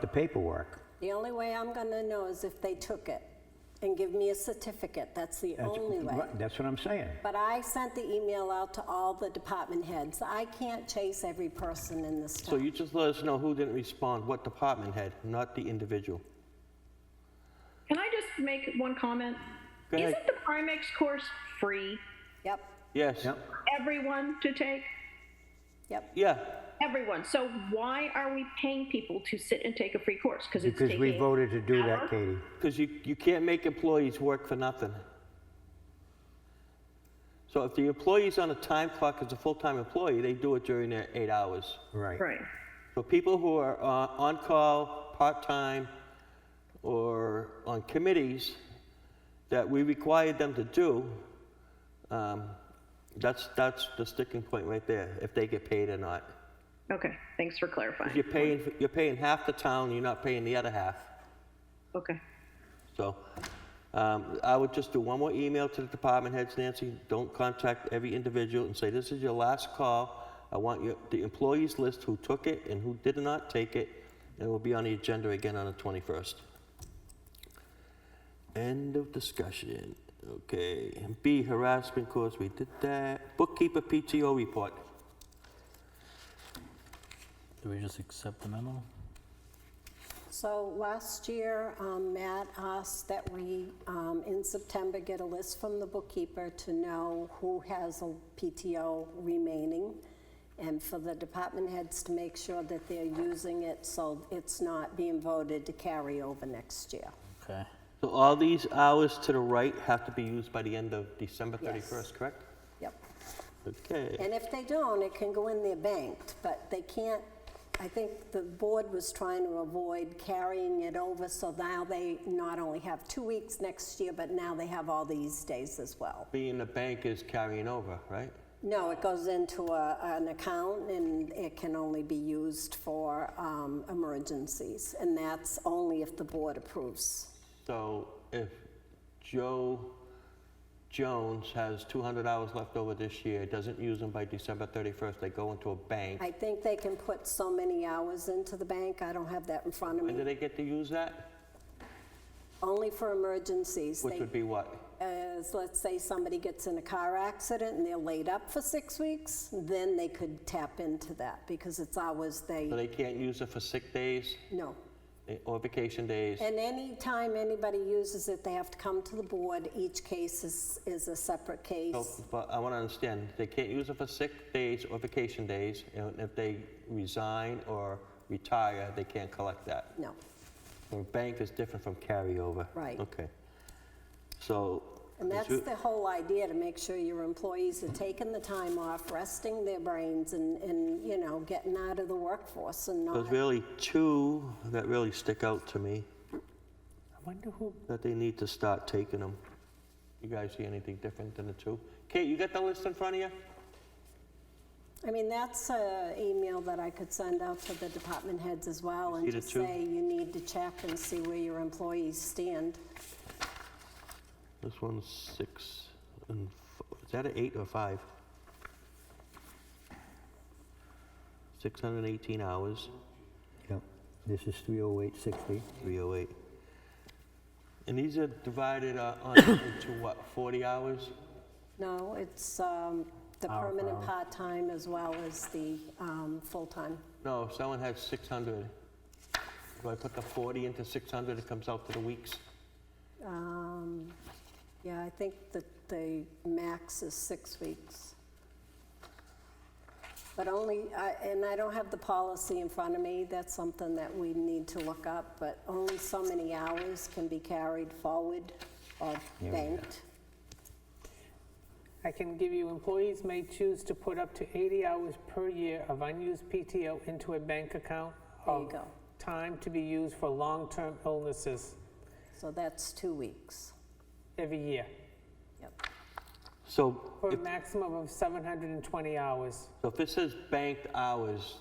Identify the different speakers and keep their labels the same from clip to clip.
Speaker 1: the paperwork.
Speaker 2: The only way I'm going to know is if they took it and give me a certificate. That's the
Speaker 1: That's-
Speaker 2: only way.
Speaker 1: right, That's what I'm saying.
Speaker 2: But I sent the email out to all the department heads. I can't chase every person in this
Speaker 3: So
Speaker 2: town.
Speaker 3: you just let us know who didn't respond, what department head, not the individual.
Speaker 4: Can I just make one comment?
Speaker 3: Go ahead.
Speaker 4: Isn't the Primex course free
Speaker 2: Yep,
Speaker 3: Yes,
Speaker 1: Yep.
Speaker 4: everyone to take?
Speaker 2: yep.
Speaker 3: yeah,
Speaker 4: Everyone. So why are we paying people to sit and take a free course? Because it's
Speaker 1: Because we
Speaker 4: taking
Speaker 1: voted to do
Speaker 4: an hour.
Speaker 1: that, Katie.
Speaker 3: because you, you can't make employees work for nothing. So if the employee's on a time clock as a full-time employee, they do it during their eight hours.
Speaker 1: Right.
Speaker 4: Right.
Speaker 3: So people who are uh, on call, part-time, or on committees that we required them to do, um, that's, that's the sticking point right there, if they get paid or not.
Speaker 4: Okay. Thanks for clarifying.
Speaker 3: You're paying, you're paying half the town, you're not paying the other half.
Speaker 4: Okay.
Speaker 3: So um, I would just do one more email to the department heads, Nancy. Don't contact every individual and say, this is your last call. I want your, the employees list who took it and who did not take it, and it will be on the agenda again on the 21st. End of discussion. Okay. And B, harassment course, we did that. Bookkeeper PTO report.
Speaker 5: Do we just accept the memo?
Speaker 2: So last year, um, Matt asked that we, um, in September, get a list from the bookkeeper to know who has a PTO remaining, and for the department heads to make sure that they're using it so it's not being voted to carry over next year.
Speaker 5: Okay.
Speaker 3: So all these hours to the right have to be used by the end of December
Speaker 2: Yes.
Speaker 3: 31st, correct?
Speaker 2: Yep.
Speaker 3: Okay.
Speaker 2: And if they don't, it can go in their banked, but they can't, I think the board was trying to avoid carrying it over, so now they not only have two weeks next year, but now they have all these days as well.
Speaker 3: Being the bank is carrying over, right?
Speaker 2: No, it goes into a, an account and it can only be used for, um, emergencies, and that's only if the board approves.
Speaker 3: So if Joe Jones has 200 hours left over this year, doesn't use them by December 31st, they go into a bank.
Speaker 2: I think they can put so many hours into the bank, I don't have that in front of
Speaker 3: When do
Speaker 2: me,
Speaker 3: they get to use that?
Speaker 2: only for emergencies.
Speaker 3: Which
Speaker 2: They
Speaker 3: would be what?
Speaker 2: as, let's say, somebody gets in a car accident and they're laid up for six weeks, then they could tap into that because it's hours
Speaker 3: So
Speaker 2: they,
Speaker 3: they can't use it for sick days
Speaker 2: no.
Speaker 3: eh, or vacation days?
Speaker 2: And any time anybody uses it, they have to come to the board. Each case is, is a separate
Speaker 3: So,
Speaker 2: case.
Speaker 3: But I want to understand, they can't use it for sick days or vacation days, and if they resign or retire, they can't collect that?
Speaker 2: No,
Speaker 3: Well, bank is different from carryover.
Speaker 2: Right.
Speaker 3: Okay. So.
Speaker 2: and
Speaker 3: is
Speaker 2: that's
Speaker 3: you-
Speaker 2: the whole idea, to make sure your employees are taking the time off, resting their brains and, and, you know, getting out of the workforce and not.
Speaker 3: There's really two that really stick out to me,
Speaker 5: I wonder who.
Speaker 3: that they need to start taking them. You guys see anything different than the two? Kate, you got the list in front of you?
Speaker 2: I mean, that's an email that I could send out to the department heads as well and
Speaker 3: See the
Speaker 2: just
Speaker 3: two?
Speaker 2: say, you need to check and see where your employees stand.
Speaker 3: This one's six and, f- is that an eight or five? 618 hours,
Speaker 1: Yep. This is 30860.
Speaker 3: 308. And these are divided uh, on into what, 40 hours?
Speaker 2: No, it's um, the
Speaker 5: Hour per
Speaker 2: permanent
Speaker 5: hour.
Speaker 2: part-time as well as the um, full-time.
Speaker 3: No, if someone has 600, do I put the 40 into 600, it comes out to the weeks?
Speaker 2: Um, Yeah, I think that the max is six weeks. But only, I- and I don't have the policy in front of me, that's something that we need to look up, but only so many hours can be carried forward or banked.
Speaker 6: I can give you, employees may choose to put up to 80 hours per year of unused PTO into a bank account
Speaker 2: There you
Speaker 6: of
Speaker 2: go.
Speaker 6: time to be used for long-term illnesses
Speaker 2: So that's two weeks.
Speaker 6: every year,
Speaker 2: Yep.
Speaker 3: So
Speaker 6: for a
Speaker 3: if,
Speaker 6: maximum of 720 hours.
Speaker 3: so if it says banked hours,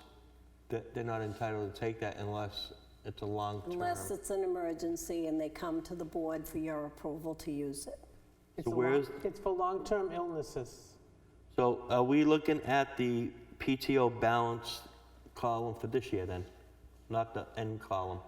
Speaker 3: that they're not entitled to take that unless it's a long term.
Speaker 2: Unless it's an emergency and they come to the board for your approval to use it.
Speaker 6: It's
Speaker 3: So
Speaker 6: a
Speaker 3: where
Speaker 6: long-
Speaker 3: is-
Speaker 6: It's for long-term illnesses.
Speaker 3: So are we looking at the PTO balance column for this year then? Not the end column?